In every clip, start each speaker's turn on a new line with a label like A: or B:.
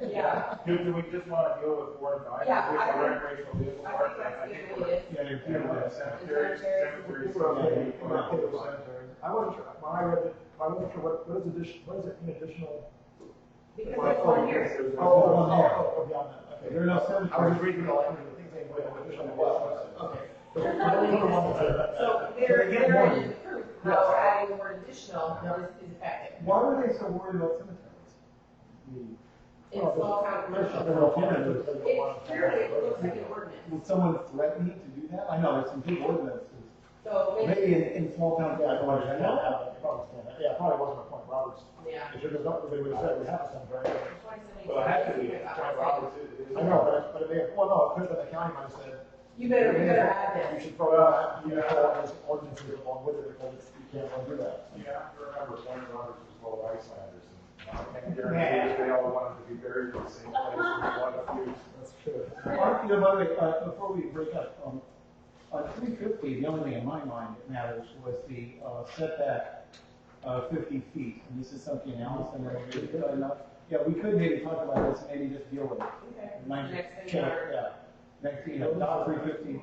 A: Do, do we just want to deal with Ward five?
B: Yeah,
A: Which
B: I
A: are
B: don't-
A: recreational vehicles,
B: I
A: Ward
B: think that's
A: five, I
B: the
A: think we're.
B: idea.
C: Yeah, they're
A: Yeah, we're
C: pure.
A: at cemetery, cemetery,
D: We're okay.
A: cemetery,
D: We're okay
A: we're
D: with
A: fine.
D: cemetery. I wasn't sure, when I read it, I wasn't sure what, what is addition, what is it, an additional?
B: Because there's one here.
A: There's
D: Oh,
A: one
D: oh,
A: more.
D: oh, oh, beyond that, okay, there are no cemeteries.
A: I was reading the
D: language, I think they put additional blocks, okay. So we're going on to that.
B: So
D: So
B: there,
D: they get
B: there
D: one.
B: is proof
D: Yes.
B: how adding the word additional is, is effective.
D: Why were they so worried about cemeteries?
B: In
D: Oh,
B: small town commercial. It clearly looks like an ordinance.
D: Would someone threaten me to do that? I know, there's some big ordinances.
B: So maybe,
D: Maybe in, in small towns, yeah, I don't understand that.
C: Yeah, probably wasn't my point, Robert's,
B: yeah.
C: it's just not, they would have said we have a cemetery.
A: Well, it has to be, John Roberts is- is-
D: I know, but, but it may, well, no, it could have been the county might have said,
B: You better, you better add
D: You
B: this.
D: should throw
C: uh,
D: out, you know, all those ordinances along with it, because you can't really do that.
A: You have to remember, John Roberts was full of Icelanders, and I can guarantee you they all wanted to be buried in the same place, with a lot of feuds.
D: That's true. Mark, you know, by the way, uh, before we break up, um, uh, three fifty, the only thing in my mind that matters was the, uh, setback, uh, fifty feet, and this is something Allison had already done enough. Yeah, we could maybe talk about this, maybe just deal with it.
B: Okay.
D: Mind you,
B: Next thing
D: check,
B: you are-
D: Yeah, next, thing you know, dot three fifty.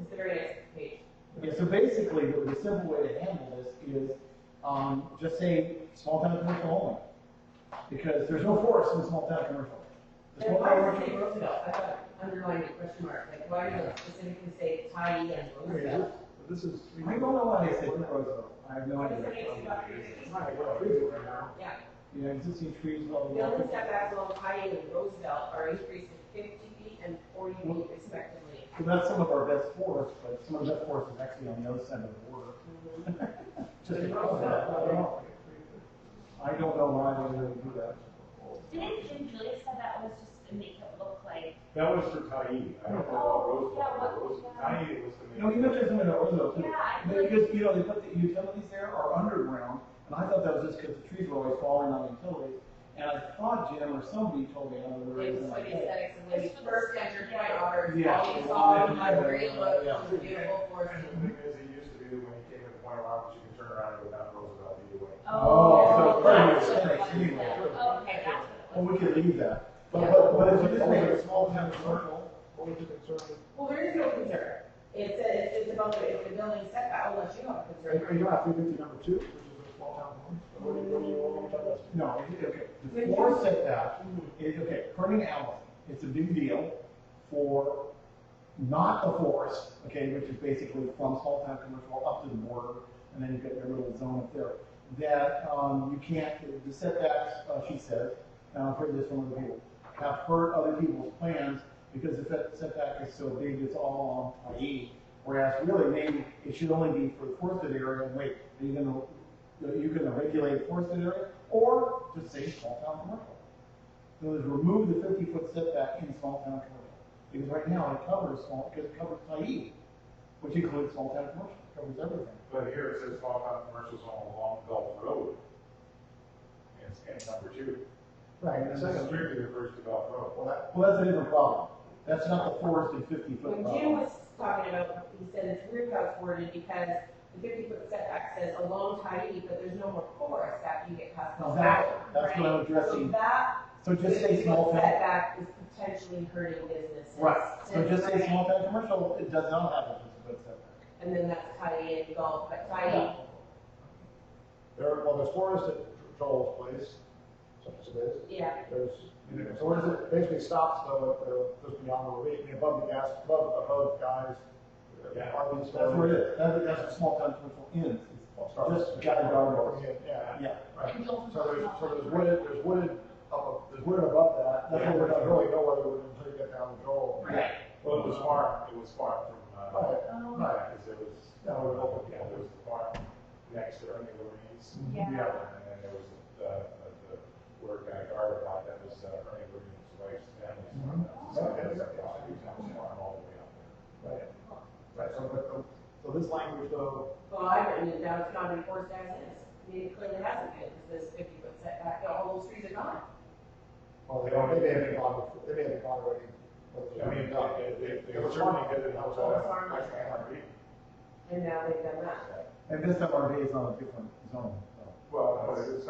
B: It's the very next page.
D: Yeah, so basically, the, the simple way to handle this is, um, just say small town commercial only. Because there's no forest in small town commercial. The
B: And
D: small
B: why
D: town
B: does it say
D: commercial-
B: Roosevelt? I thought underlined it question mark, like why does it specifically say Tiny and Roosevelt?
D: This is. I don't know why they said Roosevelt, I have no
B: What
D: idea.
B: is the next about your business? Yeah,
D: You know, existing trees, blah,
B: the
D: blah,
B: only
D: blah.
B: setbacks along Tiny and Roosevelt are increased to fifty feet and forty feet respectively.
D: So that's some of our best forests, but some of the best forests is actually on the other side of the border. Just across that, I don't know. I don't know why they really do that.
E: Didn't Jim Julia said that was just to make it look like,
A: That was for Tai, I don't know about Rose, but Rose, Tai was the main.
D: You know, even if there's one in Orlando,
E: yeah, I
D: They
E: feel
D: just, you know, they put the utilities there are underground, and I thought that was just because the trees were always falling on the utilities. And I thought Jim or somebody told me another
B: It was
D: reason
B: for
D: like
B: the
D: that.
B: aesthetics and when you first entered White Otter,
D: Yeah.
B: all you saw was a great look,
D: Yeah.
B: it was beautiful forest.
A: And the thing is, it used to be that when you came to the point of Roberts, you can turn around and go down Roosevelt either way.
D: Oh,
E: Oh,
D: so it's
E: that's what
D: pretty
E: it was.
D: aesthetic anyway.
E: Oh, Okay, that's what it
D: Well,
E: was.
D: we could leave that, but, but, but if you just make it a small town commercial,
C: What was the concern?
B: Well, there is no concern. It says, it's about the, it's the building setback, unless you have a
C: Are
B: concern.
C: you at three fifty number two, which is a small town one? What do you, what do you want me to talk about?
D: no, it- okay, the floor setback, it, okay, Kerning Alley, it's a big deal for not the forest, okay, which is basically from small town commercial up to the border, and then you've got your little zone up there. that um, you can't, the setbacks, uh, she says, and I've heard this from other people, have hurt other people's plans because the set- setback is so big, it's all on IE. Whereas really, maybe it should only be for the forested area, and wait, are you gonna, are you gonna regulate forested area? Or just say small town commercial. So is remove the fifty foot setback in small town commercial. Because right now it covers small, because it covers IE, which includes small town commercial, It covers everything.
A: But here it says small town commercials on Long Gulf Road. And it's, and number two,
D: Right.
A: and this is strictly refers to Gulf Road.
D: Well, that- well, that's a different problem. That's not the forested fifty foot
B: When Jim
D: problem.
B: was talking about, he said it's weird how it's worded because the fifty foot setback says a long tiny, but there's no more forest after you get past the
D: Now
B: valley.
D: that, that's what I'm
B: So
D: addressing.
B: that
D: So just say
B: fifty
D: small
B: foot
D: town.
B: setback is potentially hurting businesses.
D: Right, so just say small town commercial, it does not have a fifty foot setback.
B: And then that's tiny and golf, but tiny,
C: There, well, there's forest at Joel's place, such as it is.
B: yeah,
C: There's, you know, so what is it, basically stops though at the, just beyond the ravine, I mean, above the gas, above the road guys.
A: Yeah.
C: RV
D: That's where it
C: storage.
D: is. That, that's what small town commercial ends.
C: Well, start-
D: Just got it all over.
C: Yeah,
D: Yeah,
C: right. So there's, so there's wooded, there's wooded, up- there's wooded above that, that's
D: Yeah.
C: where we don't really know where it would until you get down the Joel.
D: yeah.
A: Well, it was farm, it was farm from, uh,
C: Right,
E: Oh,
A: yeah, cause it was,
C: Yeah.
A: no, it was, yeah, there was the farm next to Ernie Lorraine's.
E: Yeah.
A: And then there was, uh, uh, the, where Guy Garber bought that was uh, Ernie Lorraine's wife's family's farm. So that's a property, that was farm all the way up there.
C: right, right, so, but, so- so this language though,
B: Well, I've written it down, it's not enforced as is. I mean, it clearly hasn't been, because this fifty foot setback, all those trees are gone.
C: well, they don't, they may have gone, before- they may have gone already.
A: I mean, they, they, they certainly did it, that was all, that's kind of reading.
B: And now they've done that.
D: And this MRV is on a different zone, so.
A: Well, but it's